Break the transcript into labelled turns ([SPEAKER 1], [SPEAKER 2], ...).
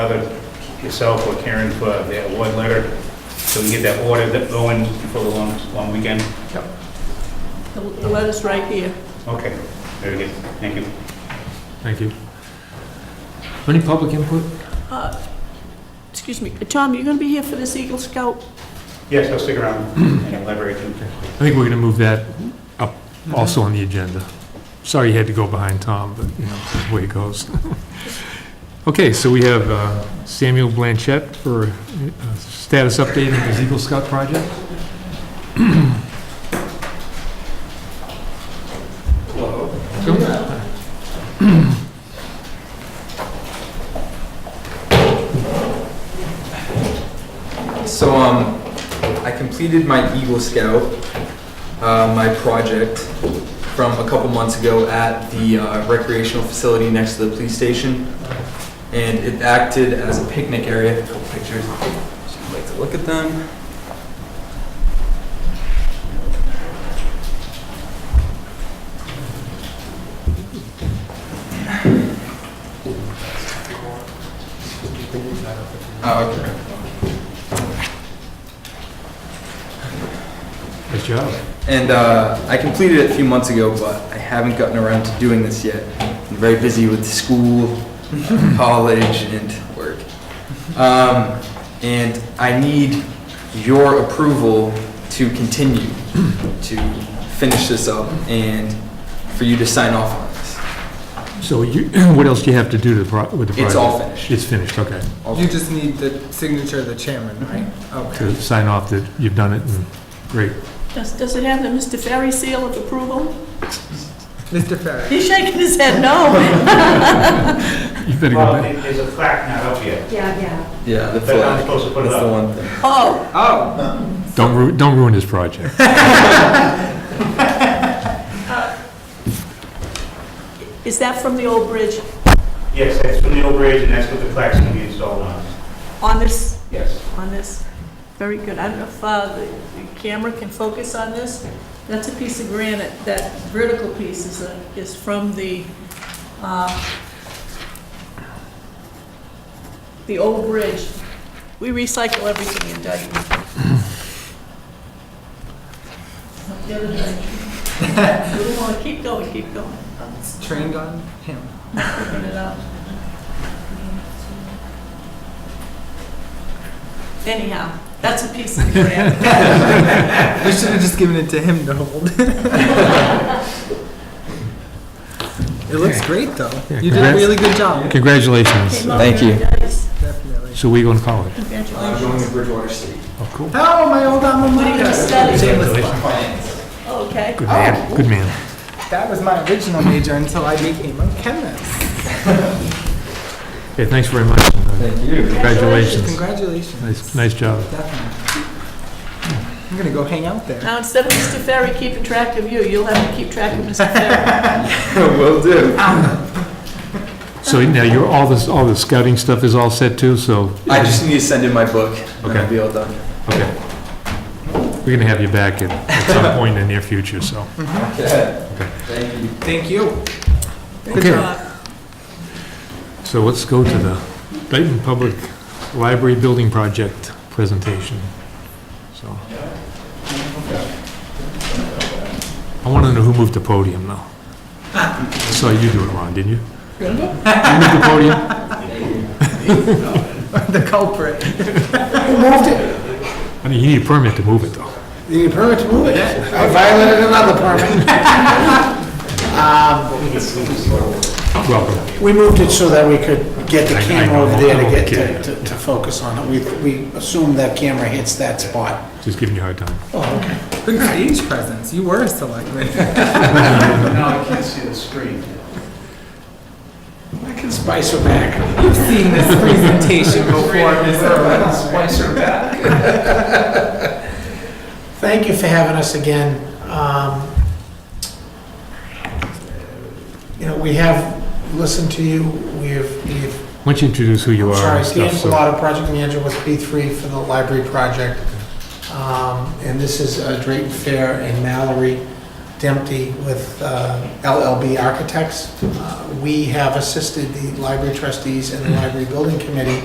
[SPEAKER 1] either yourself or Karen for the award letter, so we get that order that going for the long, long weekend?
[SPEAKER 2] The the letter's right here.
[SPEAKER 1] Okay, very good, thank you.
[SPEAKER 3] Thank you. Any public input?
[SPEAKER 2] Uh, Excuse me, uh, Tom, you gonna be here for this Eagle Scout?
[SPEAKER 1] Yes, I'll stick around and elaborate.
[SPEAKER 3] I think we're going to move that up also on the agenda. Sorry you had to go behind Tom, but you know, that's the way it goes. Okay, so we have uh, Samuel Blanchett for uh, status update on the Eagle Scout project. Hello.
[SPEAKER 4] So um, I completed my Eagle Scout, uh, my project from a couple months ago at the uh, recreational facility next to the police station, and it acted as a picnic area. A couple pictures. So I'd like to look at them. Oh, okay.
[SPEAKER 3] Good job.
[SPEAKER 4] And uh, I completed it a few months ago, but I haven't gotten around to doing this yet. I'm very busy with school, college, and work. Um, and I need your approval to continue to finish this up and for you to sign off on this.
[SPEAKER 3] So you, what else do you have to do to the pro- with the project?
[SPEAKER 4] It's all finished.
[SPEAKER 3] It's finished, okay.
[SPEAKER 5] You just need the signature of the chairman, right?
[SPEAKER 3] To
[SPEAKER 5] Okay.
[SPEAKER 3] sign off that you've done it, and great.
[SPEAKER 2] Does, does it have the Mr. Ferry seal of approval?
[SPEAKER 5] Mr. Ferry,
[SPEAKER 2] He's shaking his head no.
[SPEAKER 3] You better go
[SPEAKER 1] Well,
[SPEAKER 3] back.
[SPEAKER 1] there's a plaque not up yet,
[SPEAKER 6] Yeah, yeah.
[SPEAKER 4] Yeah, the
[SPEAKER 1] that's how I'm
[SPEAKER 4] flag.
[SPEAKER 1] supposed to put it
[SPEAKER 4] That's the
[SPEAKER 1] up.
[SPEAKER 4] one thing.
[SPEAKER 2] Oh,
[SPEAKER 5] oh,
[SPEAKER 3] Don't ru, don't ruin his project.
[SPEAKER 2] is that from the old bridge
[SPEAKER 1] Yes, that's from the old bridge, and that's what the plaque's gonna be installed on,
[SPEAKER 2] on this,
[SPEAKER 1] yes.
[SPEAKER 2] on this? Very good. I don't know if uh, the the camera can focus on this. That's a piece of granite, that vertical piece is, a- is from the, uh, the old bridge. We recycle everything in Dayton. Not the other direction. We don't want to keep going, keep going.
[SPEAKER 5] it's trained on him.
[SPEAKER 2] Open it up. Anyhow, that's a piece of granite.
[SPEAKER 5] We should have just given it to him to hold. It looks great, though. You did a
[SPEAKER 3] congrats.
[SPEAKER 5] really good job,
[SPEAKER 3] Congratulations.
[SPEAKER 4] Thank you.
[SPEAKER 5] definitely.
[SPEAKER 3] So we going to college?
[SPEAKER 4] I'm
[SPEAKER 2] Congratulations.
[SPEAKER 4] going to Bridgewater State.
[SPEAKER 3] Oh, cool.
[SPEAKER 5] Oh, my old alma
[SPEAKER 2] What did you
[SPEAKER 5] mater.
[SPEAKER 2] study?
[SPEAKER 4] Finance.
[SPEAKER 2] Okay.
[SPEAKER 3] Good
[SPEAKER 4] Oh.
[SPEAKER 3] man, good man.
[SPEAKER 5] That was my original major until I became a chemist.
[SPEAKER 3] Okay, thanks very much. and, uh,
[SPEAKER 4] Thank you.
[SPEAKER 3] Congratulations.
[SPEAKER 5] Congratulations,
[SPEAKER 3] Nice, nice job.
[SPEAKER 5] definitely. I'm gonna go hang out there.
[SPEAKER 2] Now, instead of Mr. Ferry keeping track of you, you'll have to keep track of Mr. Ferry.
[SPEAKER 4] Will do.
[SPEAKER 3] So now you're, all this, all the scouting stuff is all set too, so.
[SPEAKER 4] I just need to send in my book. And
[SPEAKER 3] Okay.
[SPEAKER 4] I'll be all done.
[SPEAKER 3] Okay. We're going to have you back at, at some point in the near future, so.
[SPEAKER 4] Okay. Thank you.
[SPEAKER 5] Thank you.
[SPEAKER 2] Good
[SPEAKER 3] Okay.
[SPEAKER 2] job.
[SPEAKER 3] So let's go to the Dayton Public Library Building Project presentation. So. I want to know who moved the podium now. I saw you do it, Ron, didn't you? You moved the podium?
[SPEAKER 5] The culprit.
[SPEAKER 3] I mean, you need a permit to move it, though.
[SPEAKER 7] You need a permit to move it. I violated another permit.
[SPEAKER 3] Welcome.
[SPEAKER 7] We moved it so that we could get the
[SPEAKER 3] I- I
[SPEAKER 7] camera over
[SPEAKER 3] know,
[SPEAKER 7] there
[SPEAKER 3] I
[SPEAKER 7] to
[SPEAKER 3] know,
[SPEAKER 7] get,
[SPEAKER 3] okay.
[SPEAKER 7] to- to to focus on it. We we assume that camera hits that spot.
[SPEAKER 3] Just giving you a hard time.
[SPEAKER 5] Big stage presence. You were a selectman.
[SPEAKER 1] Now I can't see the screen.
[SPEAKER 7] I can spice her back.
[SPEAKER 5] You've seen this presentation before, Mr. Reynolds.
[SPEAKER 7] Thank you for having us again. Um, You know, we have listened to you. We've, we've
[SPEAKER 3] Why don't you introduce who you are
[SPEAKER 7] Sorry,
[SPEAKER 3] and stuff,
[SPEAKER 7] Dan
[SPEAKER 3] so.
[SPEAKER 7] Pilata, project manager with P3 for the library project. Um, And this is uh, Drayton Fair and Mallory Dempsey with uh, LLB Architects. Uh, We have assisted the library trustees and the library building committee